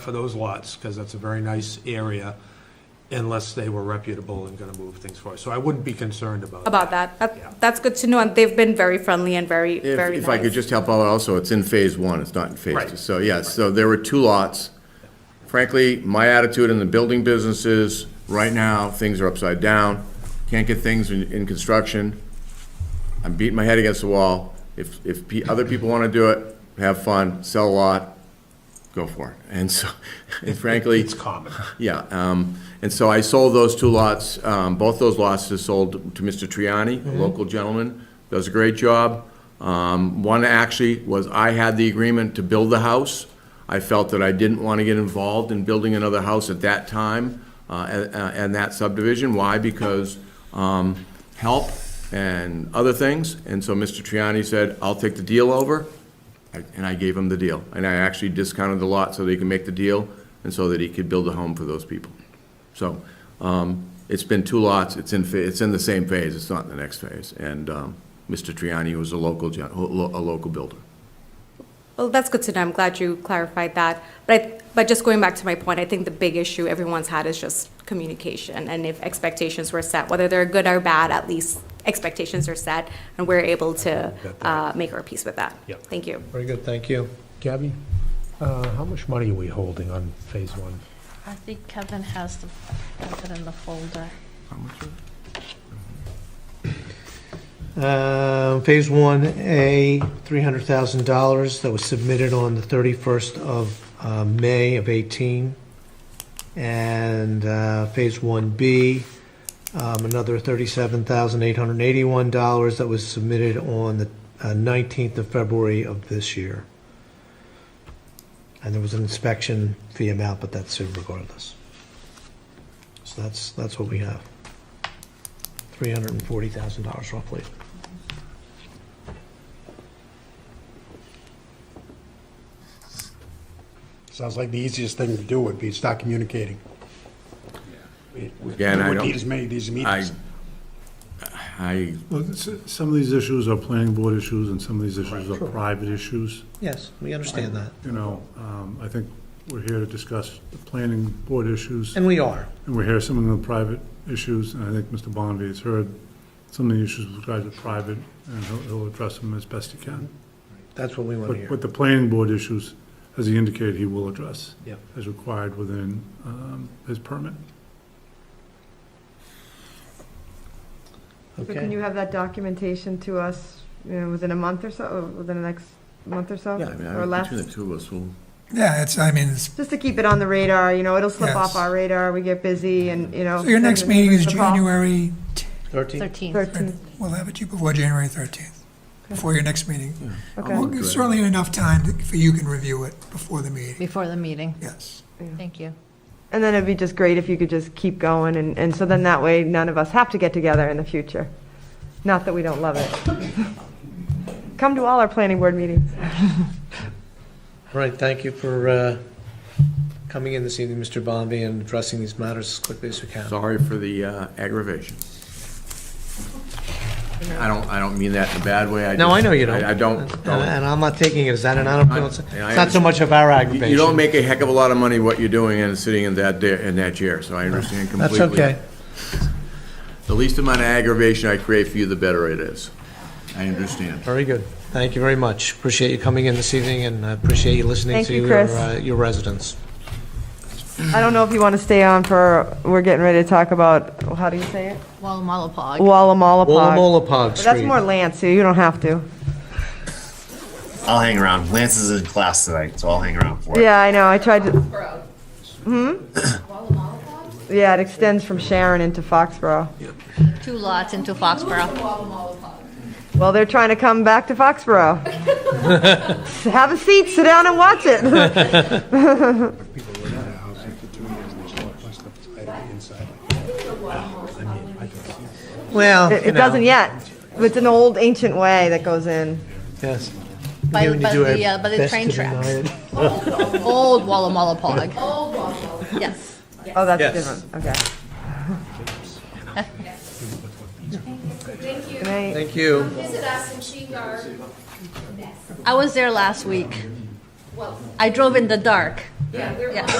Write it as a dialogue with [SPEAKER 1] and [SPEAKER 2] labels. [SPEAKER 1] for those lots, because that's a very nice area, unless they were reputable and gonna move things forward. So I wouldn't be concerned about that.
[SPEAKER 2] about that. That, that's good to know, and they've been very friendly and very,
[SPEAKER 3] If,
[SPEAKER 2] very nice.
[SPEAKER 3] if I could just help out also, it's in phase one, it's not in phase two.
[SPEAKER 1] Right.
[SPEAKER 3] So, yeah, so there were two lots. Frankly, my attitude in the building business is, right now, things are upside down. Can't get things in, in construction. I'm beating my head against the wall. If, if pe- other people want to do it, have fun, sell a lot, go for it. And so, and frankly,
[SPEAKER 1] It's common.
[SPEAKER 3] yeah, um, and so I sold those two lots, um, both those lots are sold to Mr. Triani, a local gentleman, does a great job. Um, one actually was, I had the agreement to build the house. I felt that I didn't want to get involved in building another house at that time, uh, and, and that subdivision. Why? Because, um, help and other things. And so Mr. Triani said, I'll take the deal over, I- And I gave him the deal. And I actually discounted the lot so that he could make the deal and so that he could build a home for those people. So um, it's been two lots. It's in, fa- it's in the same phase. It's not in the next phase. And um, Mr. Triani was a local, gen- a lo- a local builder.
[SPEAKER 2] Well, that's good to know. I'm glad you clarified that. But, I- but just going back to my point, I think the big issue everyone's had is just communication. And if expectations were set, whether they're good or bad, at least expectations are set, and we're able to
[SPEAKER 1] Got that.
[SPEAKER 2] uh, make our peace with that.
[SPEAKER 1] Yep.
[SPEAKER 2] Thank you.
[SPEAKER 4] Very good, thank you. Gabby, uh, how much money are we holding on phase one?
[SPEAKER 5] I think Kevin has the, has it in the folder.
[SPEAKER 6] Um, Phase 1A, $300,000 that was submitted on the 31st of uh, May of 18. And uh, Phase 1B, um, another $37,881 that was submitted on the uh, 19th of February of this year. And there was an inspection fee amount, but that's in regardless. So that's, that's what we have. $340,000 roughly.
[SPEAKER 7] Sounds like the easiest thing to do would be start communicating.
[SPEAKER 3] Again, I
[SPEAKER 7] We need as
[SPEAKER 3] don't,
[SPEAKER 7] many of these
[SPEAKER 3] I,
[SPEAKER 7] meetings.
[SPEAKER 3] I,
[SPEAKER 8] Well, s- some of these issues are planning board issues, and some of these issues are private issues,
[SPEAKER 6] Yes, we understand that,
[SPEAKER 8] you know. um, I think we're here to discuss the planning board issues,
[SPEAKER 6] and we are.
[SPEAKER 8] and we're here some of the private issues, and I think Mr. Bonvy has heard some of the issues with regard to private, and he'll- he'll address them as best he can.
[SPEAKER 6] That's what we want to
[SPEAKER 8] But
[SPEAKER 6] hear.
[SPEAKER 8] but the planning board issues, as he indicated, he will address.
[SPEAKER 6] Yeah.
[SPEAKER 8] As required within um, his permit.
[SPEAKER 9] So Can you
[SPEAKER 6] Okay.
[SPEAKER 9] have that documentation to us, you know, within a month or so, or within the next month or so?
[SPEAKER 3] yeah, I mean,
[SPEAKER 9] Or
[SPEAKER 3] I-
[SPEAKER 9] less?
[SPEAKER 3] between the two of us, we'll,
[SPEAKER 10] Yeah, it's, I mean, it's,
[SPEAKER 9] Just to keep it on the radar, you know, it'll slip
[SPEAKER 10] Yes.
[SPEAKER 9] off our radar, we get busy and, you know.
[SPEAKER 10] so your next meeting is
[SPEAKER 9] the Mm. fall.
[SPEAKER 10] January,
[SPEAKER 6] 13?
[SPEAKER 5] 13th.
[SPEAKER 9] Thirteenth,
[SPEAKER 10] we'll have it to you before January 13th, before your next meeting.
[SPEAKER 9] okay.
[SPEAKER 10] We'll give Certainly enough time to- for you can review it before the meeting,
[SPEAKER 5] Before the meeting.
[SPEAKER 10] yes.
[SPEAKER 5] Thank you.
[SPEAKER 9] And then it'd be just great if you could just keep going and, and so then that way none of us have to get together in the future. Not that we don't love it. Come to all our planning board meetings.
[SPEAKER 6] All right, thank you for uh, coming in this evening, Mr. Bombi, and addressing these matters as quickly as we can.
[SPEAKER 3] sorry for the uh, aggravation. I don't, I don't mean that in a bad way.
[SPEAKER 6] No,
[SPEAKER 3] just-
[SPEAKER 6] I know you don't.
[SPEAKER 3] I don't,
[SPEAKER 6] And-
[SPEAKER 3] don't-
[SPEAKER 6] And I'm not taking it as that, and I don't, feel it's
[SPEAKER 3] I- I
[SPEAKER 6] it's not so much of our
[SPEAKER 3] You-
[SPEAKER 6] aggravation.
[SPEAKER 3] You don't make a heck of a lot of money what you're doing and sitting in that, da- in that chair, so I understand completely.
[SPEAKER 6] That's okay.
[SPEAKER 3] The least amount of aggravation I create for you, the better it is. I understand.
[SPEAKER 6] Very good. Thank you very much. Appreciate you coming in this evening, and I appreciate you listening
[SPEAKER 9] Thank
[SPEAKER 6] to
[SPEAKER 9] you,
[SPEAKER 6] your
[SPEAKER 9] Chris.
[SPEAKER 6] uh, your residents.
[SPEAKER 9] I don't know if you want to stay on for, we're getting ready to talk about, how do you say it?
[SPEAKER 5] Walla Walla Pog.
[SPEAKER 9] Wallamalapog.
[SPEAKER 6] Wollamolapog
[SPEAKER 9] But
[SPEAKER 6] Street.
[SPEAKER 9] that's more Lance, so you don't have to.
[SPEAKER 11] I'll hang around. Lance is in class tonight, so I'll hang around for it.
[SPEAKER 9] Yeah, I know, I tried to. Hmm? Yeah, it extends from Sharon into Foxborough.
[SPEAKER 5] Two lots into Foxborough.
[SPEAKER 9] Well, they're trying to come back to Foxborough. Have a seat, sit down and watch it.
[SPEAKER 6] Well,
[SPEAKER 9] It
[SPEAKER 6] you
[SPEAKER 9] it
[SPEAKER 6] know,
[SPEAKER 9] doesn't yet. It's an old ancient way that goes in.
[SPEAKER 6] Yes.
[SPEAKER 5] By-
[SPEAKER 6] We need to
[SPEAKER 5] by
[SPEAKER 6] do our
[SPEAKER 5] the, uh, by the
[SPEAKER 6] best
[SPEAKER 5] train
[SPEAKER 6] to deny
[SPEAKER 5] tracks.
[SPEAKER 6] it.
[SPEAKER 5] Old Walla Walla Pog. Old Walla. Yes.
[SPEAKER 9] Oh, that's
[SPEAKER 6] Yes.
[SPEAKER 9] a different, okay. Good night.
[SPEAKER 6] Thank you.
[SPEAKER 5] I was there last week. I drove in the dark.
[SPEAKER 2] Yeah, we're
[SPEAKER 5] Yeah.